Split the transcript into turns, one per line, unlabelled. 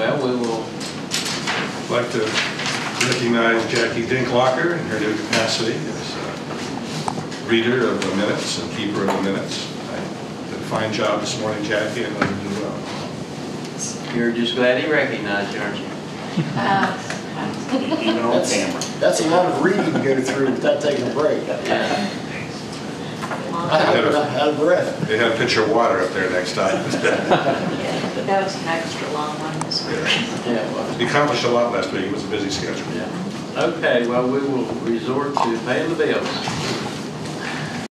I'd like to recognize Jackie Dinklocker in her new capacity as uh, reader of the minutes and keeper of the minutes. I Did a fine job this morning, Jackie, and I did well.
You're just glad he recognized you, aren't you?
Uh,
Even on
That's-
camera.
That's a lot of reading to go through without taking a break.
Yeah.
I hope we're not out of breath.
They had a pitcher of water up there next time.
yeah, That was an extra long one this week.
Yeah, well,
He accomplished a lot last week, it was a busy schedule.
yeah. Okay, well, we will resort to paying the bills.